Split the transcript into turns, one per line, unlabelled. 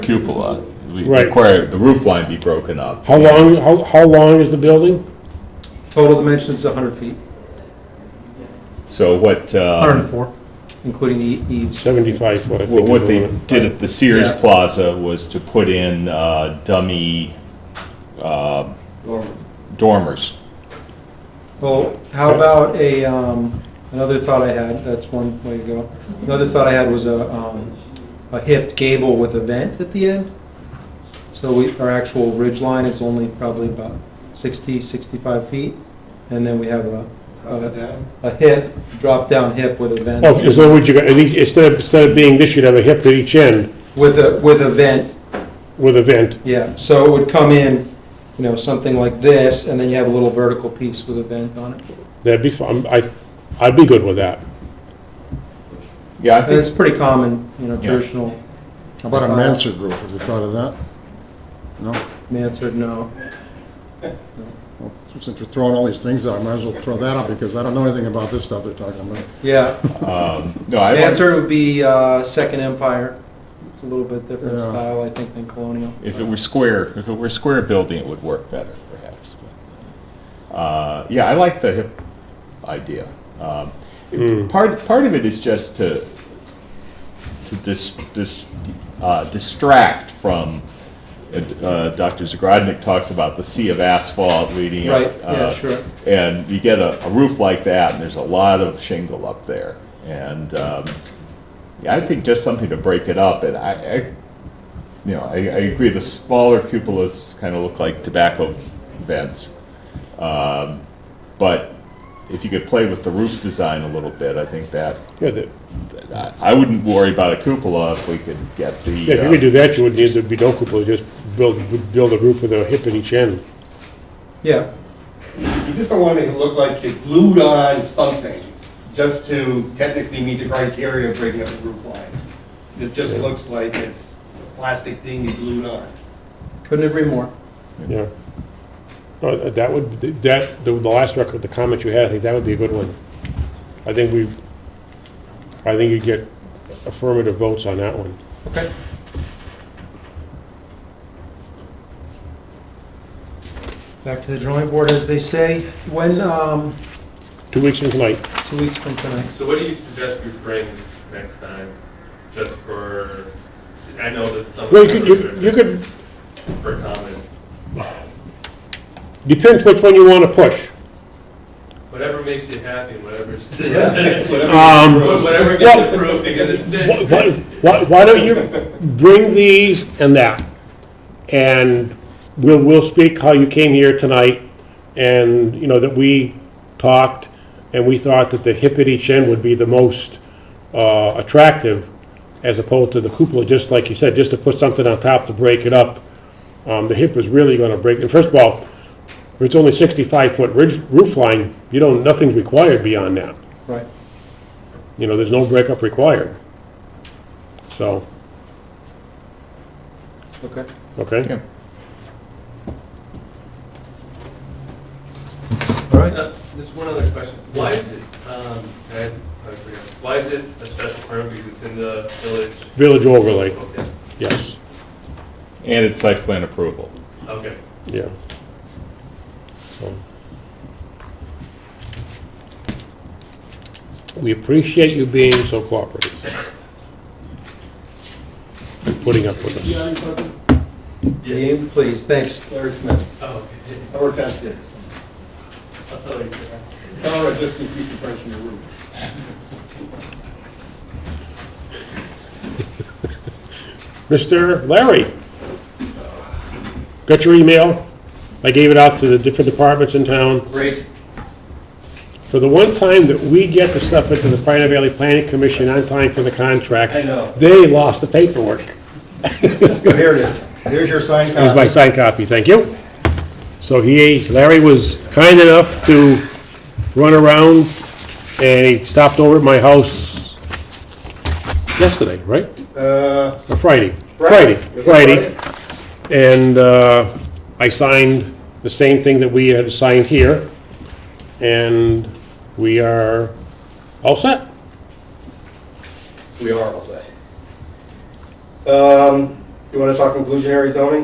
cupola. We
Right.
require the roof line be broken up.
How long, how, how long is the building?
Total dimensions, 100 feet,
So what, um,
104, including the E, eaves.
Seventy-five foot, I think.
Well, what
is
they
the limit.
did at the Sears
Yeah.
Plaza was to put in uh, dummy uh, dormers.
Well, how about a, um, another thought I had, that's one way to go. Another thought I had was a, um, a hipped gable with a vent at the end. So we, our actual ridge line is only probably about 60, 65 feet. And then we have a, a- a hip, drop-down hip with a
Oh,
vent,
as long as you got, and each- instead of, instead of being this, you'd have a hip at each end
with a, with a vent
with a vent.
Yeah, so it would come in, you know, something like this, and then you have a little vertical piece with a vent on it.
That'd be fun, I, I'd be good with that.
Yeah, I
And it's
think,
pretty common, you know,
Yeah.
traditional.
How about a
style.
mansard roof, have you thought of that? No?
Mansard, no.
Well, Since we're throwing all these things out, I might as well throw that out, because I don't know anything about this stuff they're talking about.
Yeah,
um, no, I wonder
mansard would be uh, Second Empire. It's a little bit different
Yeah.
style, I think, than colonial.
if it were square, if it were square building, it would work better perhaps. but, uh, Yeah, I like the hip idea. Um,
Mm.
Part, part of it is just to, to dis, dis, uh, distract from, uh, Dr. Zagradnik talks about the sea of asphalt leading up.
Right, yeah,
uh,
sure.
And you get a, a roof like that, and there's a lot of shingle up there. And, um, yeah, I think just something to break it up, and I, I, you know, I, I agree, the smaller cupolas kind of look like tobacco vents. Um, But if you could play with the roof design a little bit, I think that,
Yeah, that,
I, I wouldn't worry about a cupola if we could get the.
yeah, if you
uh,
could do that, you would need, there'd be no cupola, just build, build a roof with a hip at each end.
Yeah,
You just don't want it to look like you glued on something just to technically meet the criteria of breaking up the roof line. It just looks like it's a plastic thing you glued on.
couldn't agree more.
Yeah. No, th- That would, that, the the last record, the comment you had, I think that would be a good one. I think we, I think you'd get affirmative votes on that one.
Okay. Back to the drawing board, as they say. When, um,
Two weeks from tonight.
two weeks from tonight?
So what do you suggest we bring next time, just for, I know there's some.
Well, you could, you- you could,
For comments,
depends which one you want to push.
whatever makes you happy, whatever's,
Um, Well-
whatever gets approved, because it's
why,
been.
why, why don't you bring these and that? And we'll, we'll speak how you came here tonight and, you know, that we talked and we thought that the hip at each end would be the most, uh, attractive as opposed to the cupola, just like you said, just to put something on top to break it up. Um, the hip is really gonna break, and first of all, if it's only sixty-five foot ridge, roof line, you don't, nothing's required beyond that.
Right.
You know, there's no breakup required. So,
Okay.
okay?
yeah.
All right.
Uh, Just one other question, why is it, um, and I, I forgot, why is it a special permit, because it's in the village?
Village overlay,
Okay,
yes,
And it's site plan approval.
okay.
yeah. So. We appreciate you being so cooperative. and Putting up with
You know
us.
what I'm talking?
Name, please, thanks.
Larry Smith,
Oh, okay,
I work downstairs.
I thought you said.
Tell her I just increased the price on your roof.
Mr. Larry, got your email? I gave it out to the different departments in town.
Great.
For the one time that we get the stuff into the Pioneer Valley Planning Commission on time for the contract.
I know.
They lost the paperwork.
Here it is. Here's your sign
Here's my
copy.
signed copy, thank you. So he, Larry was kind enough to run around and he stopped over at my house yesterday, right?
Uh,
Or Friday?
Friday.
Friday, Friday. And uh, I signed the same thing that we had signed here. And we are all set.
We are, I'll say. Um, You wanna talk inclusionary zoning?